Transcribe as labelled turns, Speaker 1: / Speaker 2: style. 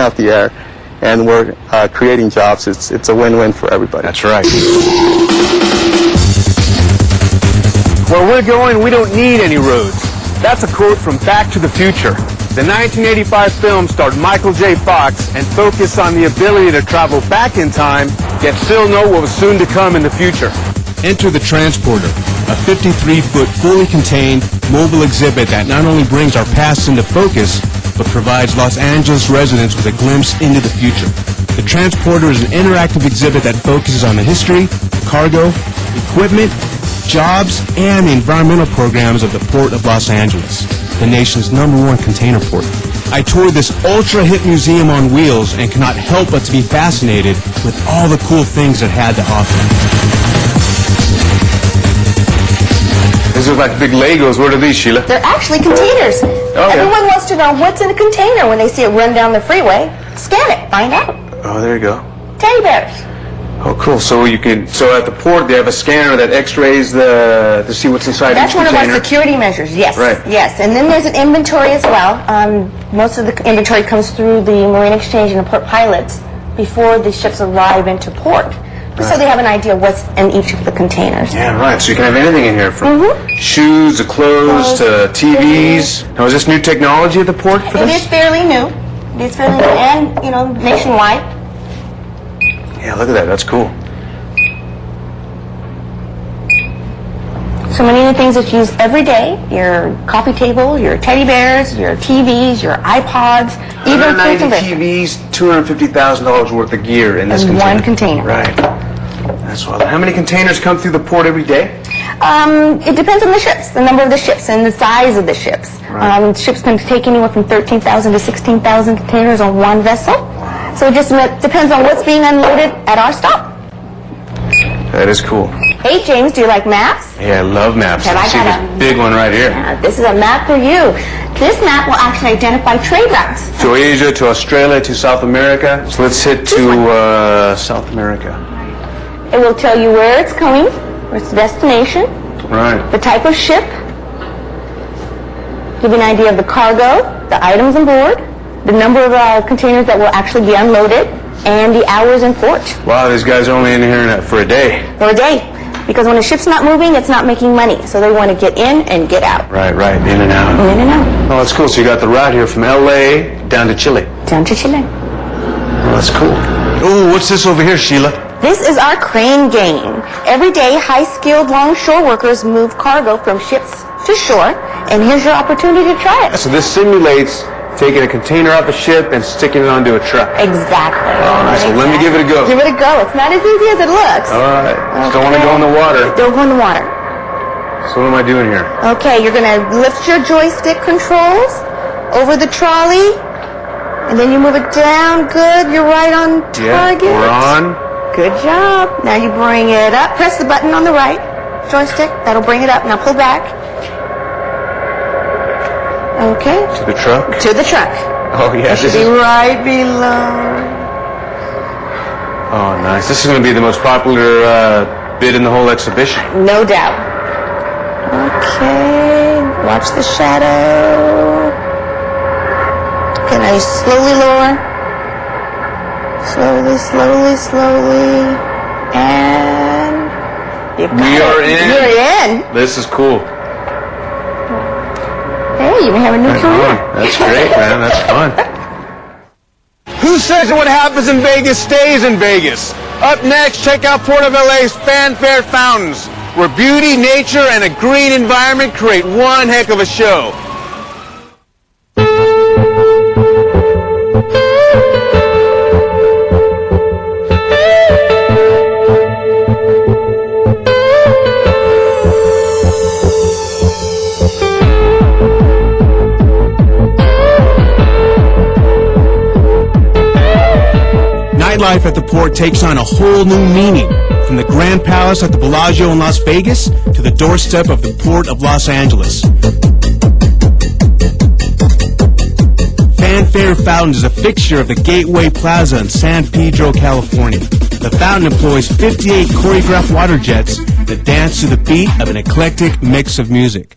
Speaker 1: out the air, and we're uh, creating jobs. It's it's a win-win for everybody.
Speaker 2: That's right.
Speaker 3: Where we're going, we don't need any roads. That's a quote from Back to the Future. The 1985 film starred Michael J. Fox and focused on the ability to travel back in time, yet still know what was soon to come in the future.
Speaker 4: Enter the Transporter, a 53-foot fully contained mobile exhibit that not only brings our past into focus, but provides Los Angeles residents with a glimpse into the future. The Transporter is an interactive exhibit that focuses on the history, cargo, equipment, jobs, and the environmental programs of the Port of Los Angeles, the nation's number one container port. I toured this ultra-hip museum on wheels and cannot help but to be fascinated with all the cool things it had to offer.
Speaker 2: These are like big Legos. What are these, Sheila?
Speaker 5: They're actually containers.
Speaker 2: Oh,
Speaker 5: Everyone wants to know what's in a container when they see it run down the freeway. Scan it, find out.
Speaker 2: Oh, there you go.
Speaker 5: Teddy bears.
Speaker 2: Oh, cool. So you can. So at the port, they have a scanner that X-rays the to see what's inside
Speaker 5: That's
Speaker 2: each
Speaker 5: one of our
Speaker 2: container.
Speaker 5: security measures, yes.
Speaker 2: Right.
Speaker 5: Yes, and then there's an inventory as well. Um, most of the inventory comes through the Marine Exchange and the port pilots before the ships arrive into port. So they have an idea what's in each of the containers. Mm-hmm.
Speaker 2: yeah, right. So you can have anything in here from shoes to clothes to TVs. Now, is this new technology at the port for
Speaker 5: It
Speaker 2: this?
Speaker 5: is fairly new. It is fairly new and, you know, nationwide.
Speaker 2: Yeah, look at that. That's cool.
Speaker 5: So many of the things that you use every day, your coffee table, your teddy bears, your TVs, your iPods, even food
Speaker 2: 190
Speaker 5: delivery.
Speaker 2: TVs, two hundred fifty thousand dollars worth of gear in this
Speaker 5: In
Speaker 2: container.
Speaker 5: one container.
Speaker 2: Right. That's wild. How many containers come through the port every day?
Speaker 5: Um, it depends on the ships, the number of the ships and the size of the ships. Um, ships can take anywhere from 13,000 to 16,000 containers on one vessel. So it just met- depends on what's being unloaded at our stop.
Speaker 2: That is cool.
Speaker 5: Hey, James, do you like maps?
Speaker 2: Yeah, I love maps.
Speaker 5: Can I
Speaker 2: see
Speaker 5: have
Speaker 2: this
Speaker 5: a-
Speaker 2: big one right here.
Speaker 5: Uh, this is a map for you. This map will actually identify trade routes.
Speaker 2: to Asia, to Australia, to South America. So let's hit to uh, South America.
Speaker 5: It will tell you where it's going, where its destination,
Speaker 2: Right.
Speaker 5: the type of ship, give you an idea of the cargo, the items on board, the number of uh, containers that will actually be unloaded, and the hours in port
Speaker 2: Wow, these guys are only in here for a day.
Speaker 5: or a day. Because when a ship's not moving, it's not making money. So they want to get in and get out.
Speaker 2: Right, right, in and out.
Speaker 5: In and out.
Speaker 2: Oh, that's cool. So you got the route here from LA down to Chile.
Speaker 5: Down to Chile.
Speaker 2: Oh, that's cool. Oh, what's this over here, Sheila?
Speaker 5: This is our crane game. Every day, high-skilled longshore workers move cargo from ships to shore, and here's your opportunity to try it.
Speaker 2: So this simulates taking a container off a ship and sticking it onto a truck.
Speaker 5: Exactly.
Speaker 2: All right, so let me give it a go.
Speaker 5: Give it a go. It's not as easy as it looks.
Speaker 2: All right. Just don't want to go in the water.
Speaker 5: Don't go in the water.
Speaker 2: So what am I doing here?
Speaker 5: Okay, you're gonna lift your joystick controls over the trolley, and then you move it down. Good, you're right on
Speaker 2: Yeah,
Speaker 5: target.
Speaker 2: we're on.
Speaker 5: Good job. Now you bring it up. Press the button on the right joystick. That'll bring it up. Now pull back. Okay,
Speaker 2: To the truck.
Speaker 5: to the truck.
Speaker 2: Oh, yeah. This
Speaker 5: Be
Speaker 2: is,
Speaker 5: right below.
Speaker 2: oh, nice. This is going to be the most popular uh, bid in the whole exhibition.
Speaker 5: No doubt. Okay, watch the shadow. Can I slowly lower? Slowly, slowly, slowly. And you've got
Speaker 2: We
Speaker 5: it.
Speaker 2: are in.
Speaker 5: You're in.
Speaker 2: This is cool.
Speaker 5: Hey, you have a new career.
Speaker 2: That's great, man. That's fun.
Speaker 3: Who says that what happens in Vegas stays in Vegas? Up next, check out Port of LA's Fanfare Fountains, where beauty, nature, and a green environment create one heck of a show.
Speaker 4: Nightlife at the port takes on a whole new meaning, from the Grand Palace at the Bellagio in Las Vegas to the doorstep of the Port of Los Angeles. Fanfare Fountains is a fixture of the Gateway Plaza in San Pedro, California. The fountain employs 58 choreographed water jets that dance to the beat of an eclectic mix of music.